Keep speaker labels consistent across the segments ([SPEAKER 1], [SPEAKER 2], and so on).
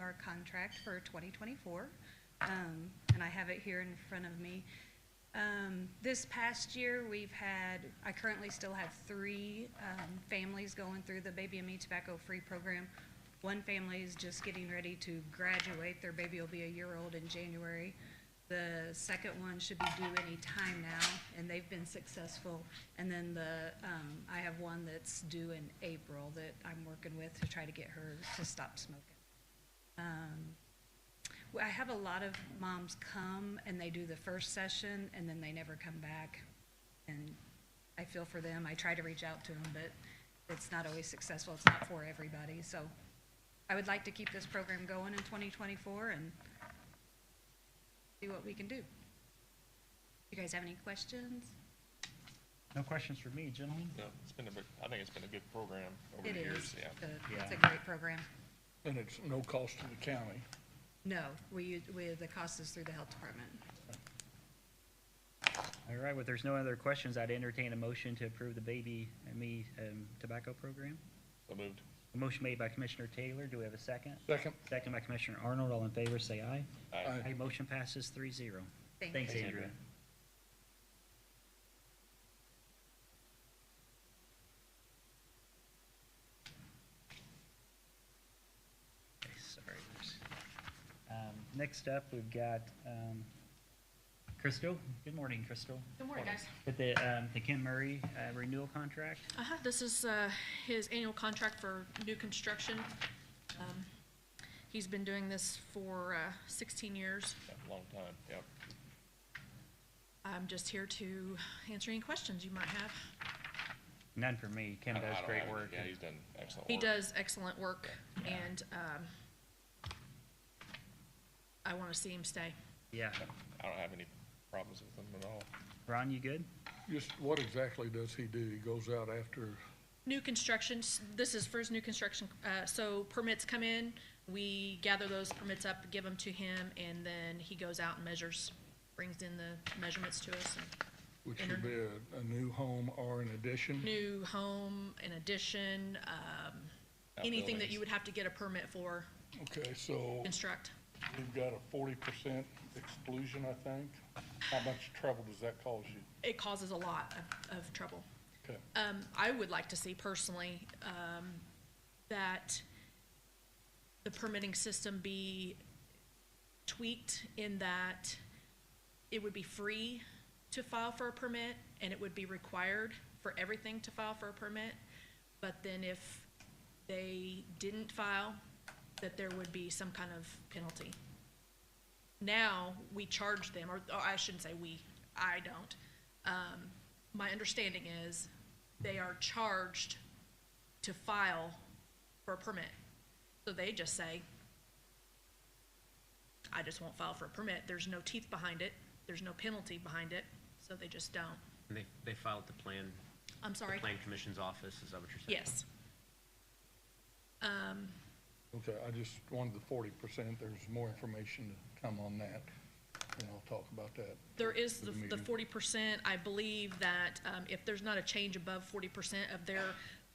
[SPEAKER 1] our contract for 2024, um, and I have it here in front of me. Um, This past year, we've had, I currently still have three um, families going through the Baby and Me Tobacco Free Program. One family is just getting ready to graduate. Their baby will be a year old in January. The second one should be due any time now, and they've been successful. And then the, um, I have one that's due in April that I'm working with to try to get her to stop smoking. Um, well, I have a lot of moms come and they do the first session and then they never come back. And I feel for them. I try to reach out to them, but it's not always successful. It's not for everybody. So I would like to keep this program going in 2024 and see what we can do. You guys have any questions?
[SPEAKER 2] No questions for me, gentlemen?
[SPEAKER 3] No, it's been a, big- I think it's been a good program over
[SPEAKER 1] It
[SPEAKER 3] the
[SPEAKER 1] is.
[SPEAKER 3] years, yeah.
[SPEAKER 1] The- It's a
[SPEAKER 2] Yeah.
[SPEAKER 1] great program.
[SPEAKER 4] And it's no cost to the county.
[SPEAKER 1] No, we, u- we, the cost is through the health department.
[SPEAKER 2] All right, well, there's no other questions, I'd entertain a motion to approve the Baby and Me um, Tobacco Program.
[SPEAKER 3] So moved.
[SPEAKER 2] A motion made by Commissioner Taylor, do we have a second?
[SPEAKER 4] Second.
[SPEAKER 2] Second by Commissioner Arnold, all in favor, say aye.
[SPEAKER 3] Aye.
[SPEAKER 2] Aye, motion passes three zero.
[SPEAKER 1] Thank
[SPEAKER 2] Thanks,
[SPEAKER 1] you.
[SPEAKER 2] Andrea. Okay, Sorry. there's- Um, Next up, we've got um, Crystal. Good morning, Crystal.
[SPEAKER 5] Good morning, guys.
[SPEAKER 2] With the um, the Kim Murray uh, renewal contract.
[SPEAKER 5] Uh-huh, this is, uh, his annual contract for new construction. Um, He's been doing this for, uh, sixteen years.
[SPEAKER 3] Yeah, Long time, yeah.
[SPEAKER 5] I'm just here to answer any questions you might have.
[SPEAKER 2] None for me. Kim
[SPEAKER 3] I don't- I
[SPEAKER 2] does
[SPEAKER 3] don't
[SPEAKER 2] great
[SPEAKER 3] have-
[SPEAKER 2] work.
[SPEAKER 3] Yeah, he's done excellent work.
[SPEAKER 5] He does excellent work and, um, I wanna see him stay.
[SPEAKER 2] Yeah.
[SPEAKER 3] I don't have any problems with him at all.
[SPEAKER 2] Ron, you good?
[SPEAKER 4] Just what exactly does he do? He goes out after,
[SPEAKER 5] New construction, s- this is for his new construction, uh, so permits come in, we gather those permits up, give them to him, and then he goes out and measures, brings in the measurements to us and
[SPEAKER 4] which would be a, a new home or an addition?
[SPEAKER 5] new home, an addition, um, anything that you would have to get a permit for,
[SPEAKER 4] Okay, so
[SPEAKER 5] construct.
[SPEAKER 4] we've got a forty percent exclusion, I think. How much trouble does that cause you?
[SPEAKER 5] It causes a lot of, of trouble.
[SPEAKER 4] Okay,
[SPEAKER 5] Um, I would like to see personally, um, that the permitting system be tweaked in that it would be free to file for a permit and it would be required for everything to file for a permit. But then if they didn't file, that there would be some kind of penalty. Now, we charge them, or, or I shouldn't say we, I don't. Um, my understanding is they are charged to file for a permit. So they just say, I just won't file for a permit. There's no teeth behind it. There's no penalty behind it. So they just don't.
[SPEAKER 6] And they, they filed the plan,
[SPEAKER 5] I'm sorry.
[SPEAKER 6] the plan commission's office, is that what you're saying?
[SPEAKER 5] Yes.
[SPEAKER 4] okay, I just wanted the forty percent. There's more information to come on that, and I'll talk about that.
[SPEAKER 5] There is the, the
[SPEAKER 4] meeting.
[SPEAKER 5] forty percent, I believe that, um, if there's not a change above forty percent of their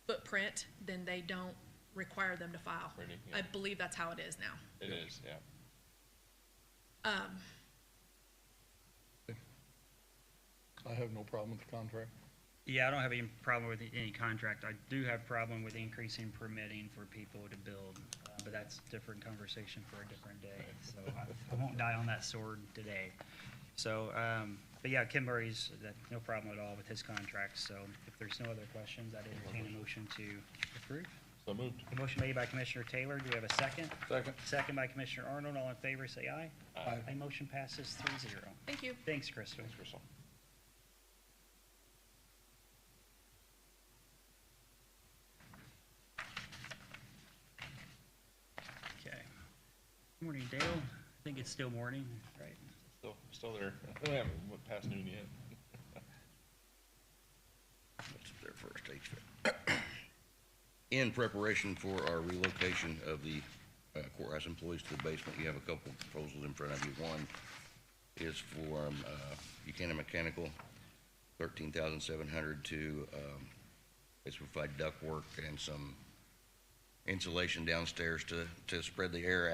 [SPEAKER 5] footprint, then they don't require them to file.
[SPEAKER 3] Really? Yeah.
[SPEAKER 5] I believe that's how it is now.
[SPEAKER 3] It is, yeah.
[SPEAKER 4] I have no problem with the contract.
[SPEAKER 2] Yeah, I don't have any problem with any contract. I do have problem with increasing permitting for people to build, uh, but that's different conversation for a different day. So I- I won't die on that sword today. So, um, but yeah, Kim Murray's, that- no problem at all with his contract. So if there's no other questions, I'd entertain a motion to approve.
[SPEAKER 3] So moved.
[SPEAKER 2] A motion made by Commissioner Taylor. Do we have a second?
[SPEAKER 4] Second.
[SPEAKER 2] Second by Commissioner Arnold. All in favor, say aye.
[SPEAKER 4] Aye.
[SPEAKER 2] Aye, motion passes three zero.
[SPEAKER 5] Thank you.
[SPEAKER 2] Thanks, Crystal.
[SPEAKER 3] Thanks, Crystal.
[SPEAKER 2] Okay. Morning, Dale. I think it's still morning, right?
[SPEAKER 3] Still, still there. We haven't went past noon yet.
[SPEAKER 7] That's their first HVAC. In preparation for our relocation of the uh, courthouse employees to the basement, you have a couple proposals in front of you. One is for um, uh, Buchanan Mechanical, thirteen thousand seven hundred to, um, it's provide ductwork and some insulation downstairs to, to spread the air